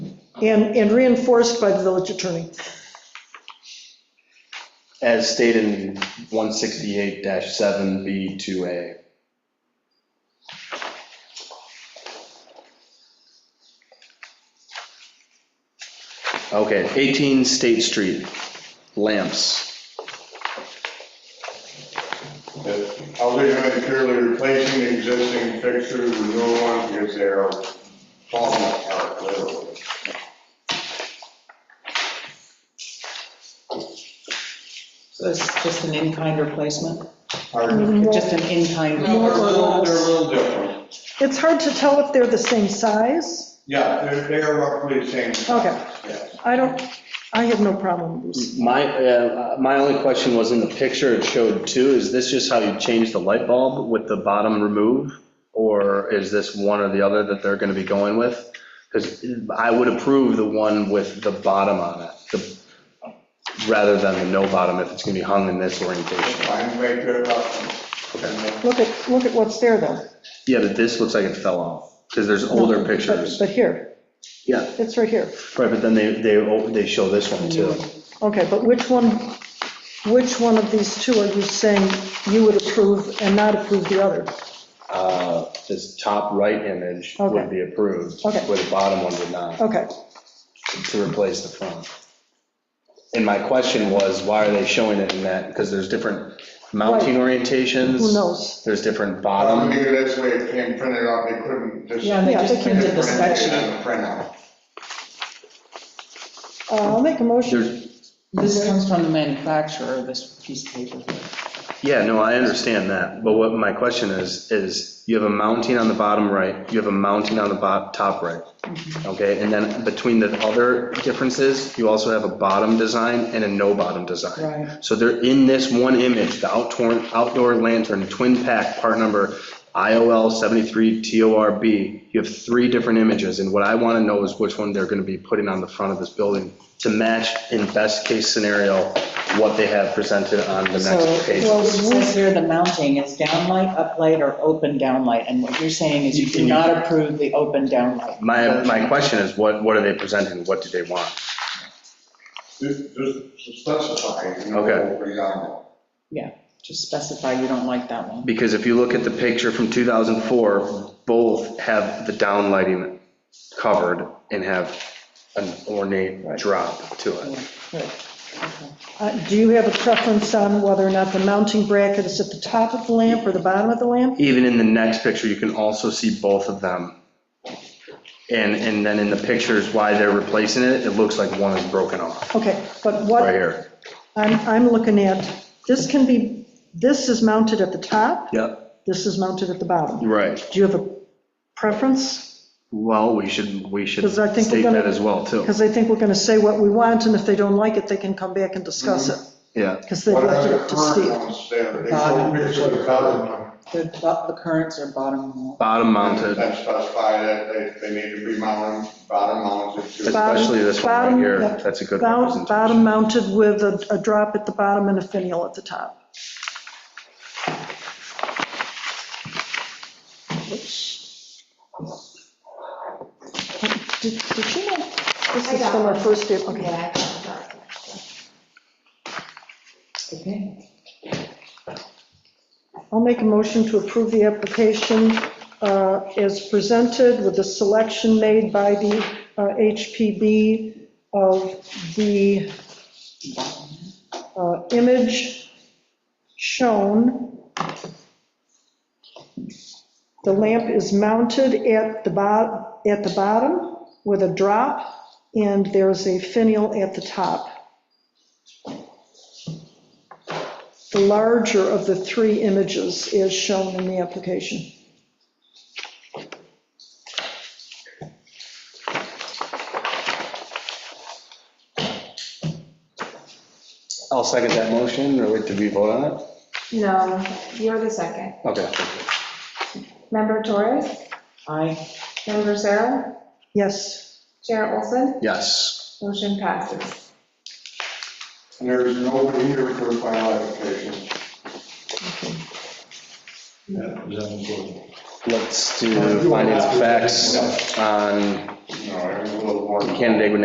and, and reinforced by the village attorney. as stated in 168-7B2A. Okay, 18 State Street, lamps. that Always purely replacing existing fixtures with new ones because they are falling apart, literally. So it's just an in-kind replacement, Mm-hmm. Pardon? just an in-kind. No, they're a little, they're a little different. It's hard to tell if they're the same size. Yeah, they're, they are roughly the same. size, Okay, yes. I don't, I have no problem with this. My, uh, my only question was in the picture it showed two, is this just how you change the light bulb with the bottom remove? Or is this one or the other that they're going to be going with? Because I would approve the one with the bottom on it, the- rather than the no bottom if it's going to be hung in this orientation. Fine, right there, rough. And Look at, look at what's there though. Yeah, but this looks like it fell off, because there's older But- pictures. But here, Yeah, it's right here. right, but then they, they, they show this one too. Okay, but which one, which one of these two are you saying you would approve and not approve the other? Uh, This top right image Okay. would be approved, where Okay. the bottom one would not. Okay, to replace the front. And my question was, why are they showing it in that? Because there's different mounting orientations. who knows? There's different Um, bottom. maybe that's why it came printed out, they couldn't just. Yeah, and they Yeah, just they can- printed the spec print it sheet. on the printout. Uh, I'll make a motion. There's, This comes from the manufacturer, this piece of paper. yeah, no, I understand that. But what my question is, is you have a mounting on the bottom right, you have a mounting on the bo- top right. Mm-hmm. Okay, and then between the other differences, you also have a bottom design and a no bottom design. Right. So they're in this one image, the outdoor, outdoor lantern, twin pack, part number IOL 73TORB. You have three different images, and what I want to know is which one they're going to be putting on the front of this building to match, in best case scenario, what they have presented on the So, next page. well, it says here the mounting is downlight, uplight, or open downlight, and what you're saying is you do not approve the open downlight. My, my question is, what, what are they presenting? What do they want? Just, just specify. you know, Okay. what we got. Yeah, just specify you don't like that one. Because if you look at the picture from 2004, both have the downlighting covered and have an ornate drop to it. Uh, Do you have a preference on whether or not the mounting bracket is at the top of the lamp or the bottom of the lamp? Even in the next picture, you can also see both of them. And, and then in the pictures, why they're replacing it, it looks like one is broken off, Okay, but what? right here. I'm, I'm looking at, this can be, this is mounted at the top, Yep. this is mounted at the bottom. Right. Do you have a preference? Well, we should, we should 'Cause I think we're state gonna- that as well, too. Because I think we're going to say what we want, and if they don't like it, they can come back and discuss it, Yeah. because they Mm-hmm. What are left it the up to current Steve. ones there? They Bottom. showed pictures of the bottom one. The, the currents are bottom. Bottom mounted, That specify that they, they need to be mounted, bottom mounted to. Bottom- especially this one right bottom- here. yeah. That's a good Bou- representation. Bottom mounted with a, a drop at the bottom and a finial at the top. Did did you know, this I is got from our one. first day, okay. Yeah, I got one. Okay. I'll make a motion to approve the application uh, as presented with the selection made by the uh, HPB of the uh, image shown. The lamp is mounted at the bottom, at the bottom with a drop, and there's a finial at the top. The larger of the three images is shown in the application. I'll second that motion, or wait, did we vote on it? No, you're the second. Okay. thank you. Member Torres, I, member Sarah, Yes, Chair Olson, Yes. motion passes. There's nobody here for a final application. Let's do findings of facts on No, I'm a little more. candidate with